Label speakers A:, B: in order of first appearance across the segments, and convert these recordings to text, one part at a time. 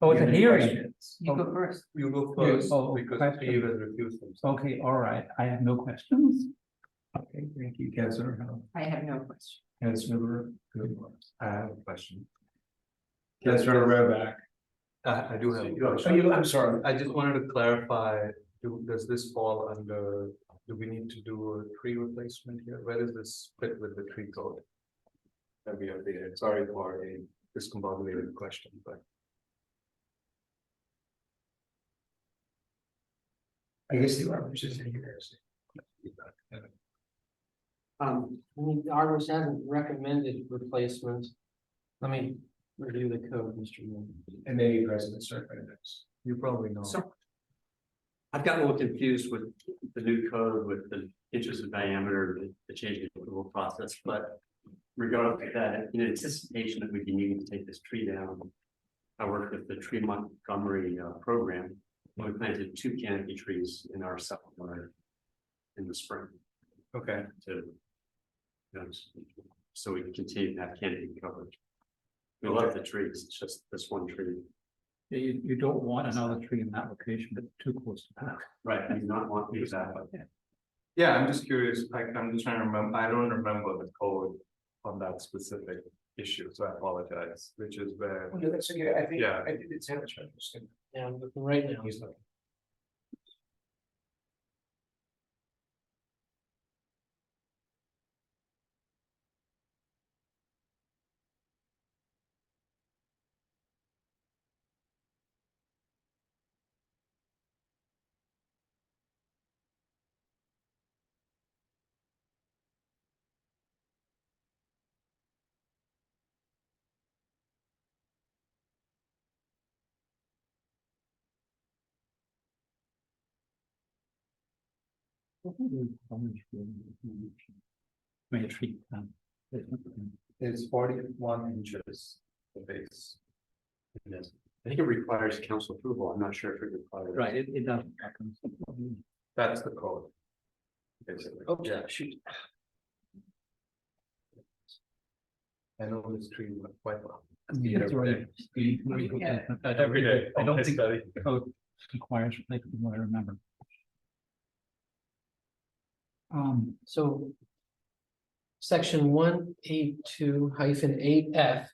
A: Oh, it's a
B: Any
A: hearing.
B: questions?
C: You
A: Oh,
C: go first.
B: You go
A: Yeah,
B: first,
A: oh,
B: because
A: question.
B: Steve has refused himself.
A: Okay, all right. I have no questions. Okay, thank you, Councilor.
C: I have no question.
A: Councilor. Goodwin.
D: I have a question.
B: Yes,
D: Councilor
B: yes.
D: Rareback. I, I do have,
B: You are
D: oh, you, I'm sorry, I just wanted to clarify, do, does this fall under, do we need to do a tree replacement here? Where is this fit with the tree code? That we updated, sorry for a discombobulated question, but.
B: I guess the arborist is in here.
E: Um, I mean, the arborist hasn't recommended replacement. Let me review the code, Mr. Moore.
B: And then you guys in the survey next.
D: You probably know.
E: So-
F: I've gotten a little confused with the new code with the inches of diameter, the- the change in the approval process, but. Regardless of that, in anticipation that we'd be needing to take this tree down. I worked with the Tree Montgomery uh, program, and we planted two canopy trees in our supplement. In the spring
D: Okay,
F: to. you know, So we can continue to have canopy coverage. We love the trees, it's just this one tree,
A: You, you don't want another tree in that location, but too close to power.
F: right, I do not want these out.
D: yeah, I'm just curious, I, I'm just trying to remember, I don't remember the code on that specific issue, so I apologize, which is where.
B: Okay, that's okay, I think,
D: Yeah.
B: I did it's Hamish, I'm just gonna-
E: Yeah, I'm looking right now.
B: he's not.
A: I mean, a tree. um,
B: It's forty-one inches, the base.
F: It is. I think it requires council approval. I'm not sure if it requires.
A: Right, it, it doesn't. happen.
D: That's the code. Basically,
B: Oh,
E: Oops,
D: yeah,
E: shoot.
D: I know this tree quite well.
A: Yeah, that's right.
C: Yeah.
A: I don't- I don't think
D: study.
A: the code requires, like, from what I remember. Um,
E: So. Section one eight two hyphen eight F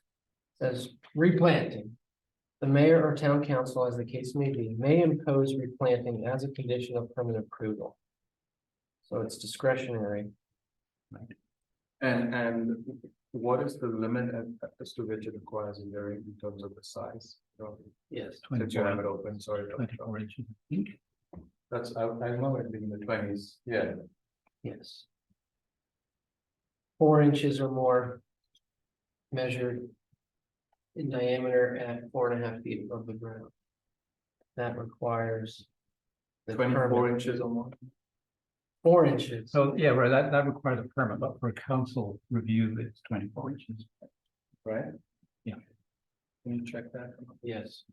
E: says replanting. The mayor or town council, as the case may be, may impose replanting as a condition of permit approval. So it's discretionary.
D: And, and what is the limit at- as to which it requires a hearing in terms of the size? So,
E: Yes.
D: Since you have it
A: twenty-four,
D: open, sorry. Dr.
A: twenty-four inches, I think.
D: That's, I, I remember it being in the twenties, yeah.
E: Yes. Four inches or more. Measured. In diameter at four and a half feet above the ground. That requires. the
D: Twenty-four
E: permit.
D: inches or more.
E: Four inches,
B: Oh.
A: So, yeah, right, that, that requires a permit, but for a council review, it's twenty-four inches.
D: right?
A: Yeah.
D: Can you check that?
E: yes,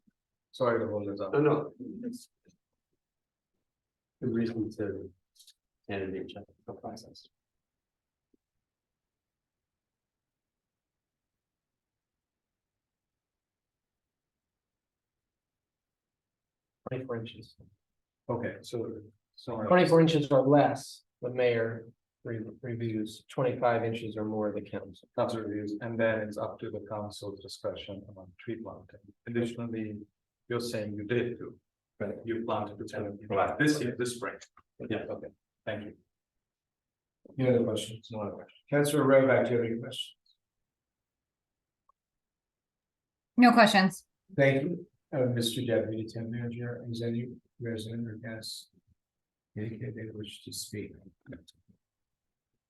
D: Sorry to hold this up.
A: Uh,
F: No, no. it's- The reason to. Candidate check the process.
E: twenty-four inches,
D: Okay, so, sorry.
E: twenty-four inches or less, the mayor re- reviews twenty-five inches or more, the council.
D: council reviews, and then it's up to the council's discretion about tree planting. Additionally, you're saying you did too. Right. You planted the ten.
F: Right, this year,
D: this spring. Yeah, okay, thank you.
B: Any other questions? No other questions. Councilor Rovak, do you have any questions?
G: No questions.
B: Thank you, uh, Mr. Deputy Town Manager, is any resident or guest? Indicate they wish to speak.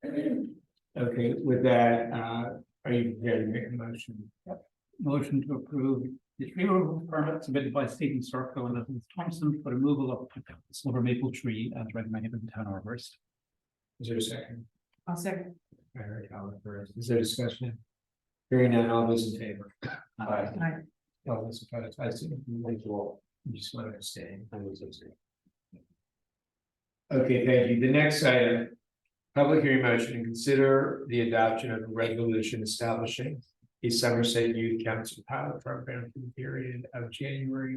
B: Okay, with that, uh, are you prepared to make a motion?
A: Motion to approve the tree removal permit submitted by Stephen Circle and Elizabeth Thompson for removal of silver maple tree as recommended by the town arborist.
B: Is there a second?
C: I'll second.
B: Eric Oliver, is there discussion? Hearing none, all those in favor? Aye.
C: Aye.
B: All those opposed, I see, thank you all, you just want to abstain.
F: I was gonna say.
B: Okay, thank you. The next item. Public hearing motion to consider the adoption of a resolution establishing.
E: the Somerset Youth Council pilot program for the period of January